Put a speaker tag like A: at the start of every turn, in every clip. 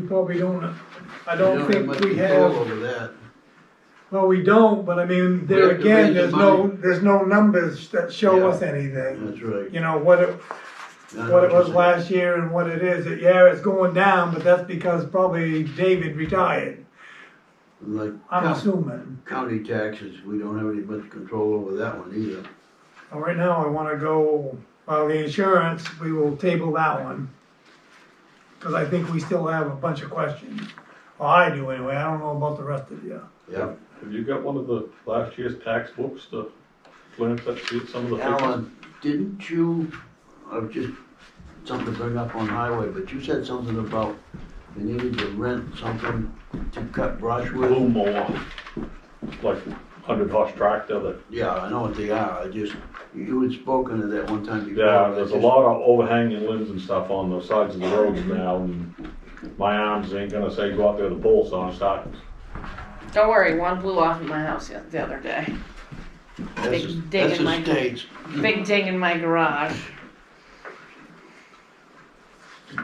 A: We probably don't, I
B: We
A: don't
B: much
A: think we
B: control
A: have,
B: Over that.
A: well, we don't, but I mean,
B: We
A: there
B: have to
A: again,
B: raise the
A: there's no,
B: money.
A: there's no numbers that show
B: Yeah.
A: us anything.
B: That's right.
A: You know, what it,
B: I know
A: what it
B: you're
A: was
B: saying.
A: last year and what it is, It- yeah, it's going down, but that's because probably David retired,
B: Like
A: I'm
B: coun-
A: assuming.
B: county taxes, we don't have any much control over that one either.
A: Well, Right now, I wanna go, well, the insurance, we will table that one. Cause I think we still have a bunch of questions, well, I do anyway, I don't know about the rest of you.
B: Yep.
C: Have you got one of the last year's tax books to glance at, see some of the figures?
B: Alan, didn't you, I was just, something to bring up on highway, but you said something about we needed to rent something to cut brush
C: A little
B: with?
C: more, like hundred horse tractor that,
B: Yeah, I know what they are, I just, you had spoken to that one time before.
C: yeah,
B: I
C: there's a
B: just-
C: lot of overhanging limbs and stuff on the sides of the roads now. and My arms ain't gonna say go out there with a bull saw and start,
D: Don't worry, one blew off in my house the the other day.
B: That's, a-
D: Dig in
B: that's
D: my-
B: a state,
A: Mm.
D: Big ding in my garage.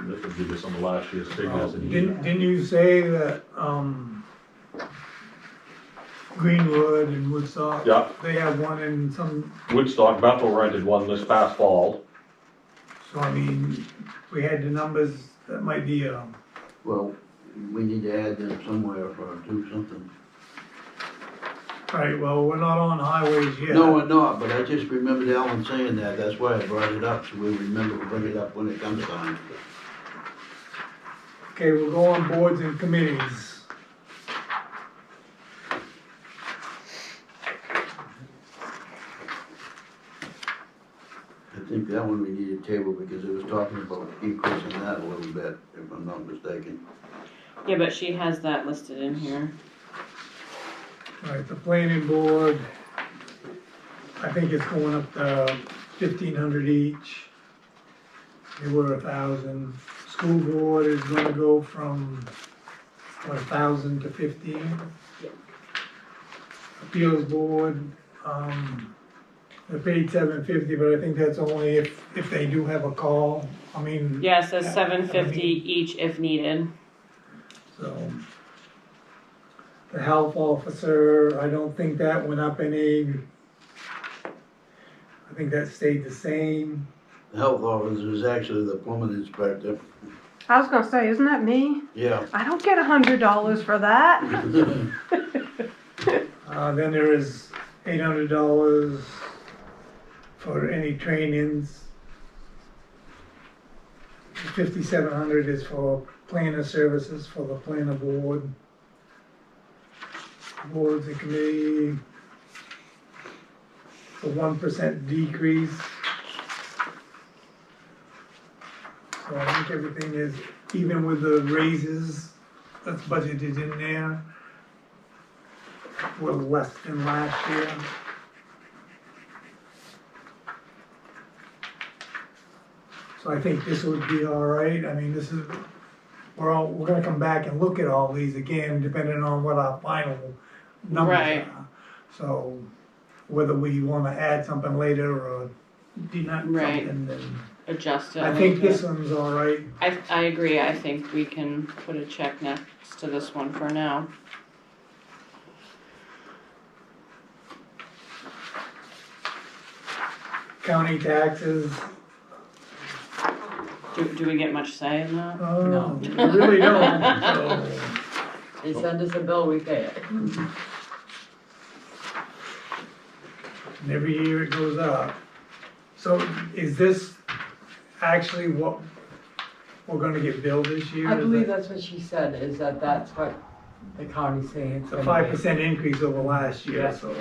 C: this would give you some of last year's figures. and you-
A: Didn't, didn't you say that, um, Greenwood and Woodstock?
C: Yeah.
A: They have one in some,
C: Woodstock Bethel rented one this past fall,
A: so I mean, we had the numbers, that might be, um,
B: well, we need to add them somewhere or do something.
A: right, well, we're not on highways yet.
B: No, we're not, but I just remembered Alan saying that, that's why I brought it up, so we remember to bring it up when it comes time.
A: Okay, we'll go on boards and committees.
B: I think that one we need a table because it was talking about increasing that a little bit, if I'm not mistaken.
D: Yeah, but she has that listed in here.
A: Alright, the planning board, I think it's going up to fifteen hundred each. They were a thousand. School board is gonna go from, what, a thousand to fifteen? Appeals board, um, they paid seven fifty, but I think that's only if, if they do have a call, I mean.
D: Yeah, it says
A: Yeah,
D: seven fifty
A: I mean-
D: each if needed.
A: So. The health officer, I don't think that went up any. I think that stayed the same.
B: The health officer is actually the plumbing inspector,
E: I was gonna say, isn't that me?
B: yeah.
E: I don't get a hundred dollars for that.
A: Uh, then there is eight hundred dollars for any trainings. Fifty-seven hundred is for planner services for the planner board. Boards and committee. A one percent decrease. So I think everything is, even with the raises that's budgeted in there, were less than last year. So I think this would be all right, I mean, this is, we're all, we're gonna come back and look at all these again, depending on what our final numbers
D: Right.
A: are. So, whether we wanna add something later or deduct
D: Right.
A: something, then,
D: Adjust it.
A: I
D: a
A: think
D: little
A: this
D: bit.
A: one's all right.
D: I, I agree, I think we can put a check next to this one for now.
A: County taxes,
D: Do, do we get much say in that?
A: oh, we really don't, so.
F: They send us a bill, we pay it.
A: and every year it goes up. So is this actually what we're gonna get billed this year?
F: I believe that's what she said, is that that's what the county's saying.
A: It's a five percent increase over last year,
F: Yeah.
A: so.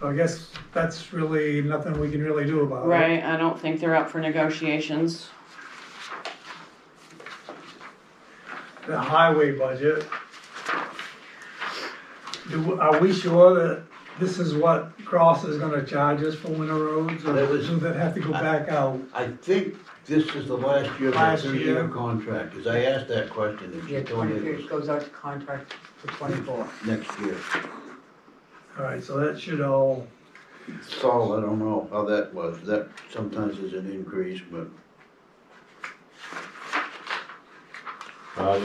A: So I guess that's really nothing we can really do about it.
D: Right, I don't think they're up for negotiations.
A: The highway budget. Do, are we sure that this is what Cross is gonna charge us for winter roads, or
B: That was-
A: do that have to go back out?
B: I think this is the last year of the
A: Last
B: three-year
A: year.
B: contract, because I asked that question, and
F: Yeah,
B: she told me
F: twenty,
B: it
F: it
B: was
F: goes out to contract for twenty-four.
B: next year.
A: Alright, so that should all,
B: Saul, I don't know how that was, that sometimes is an increase, but
C: Uh,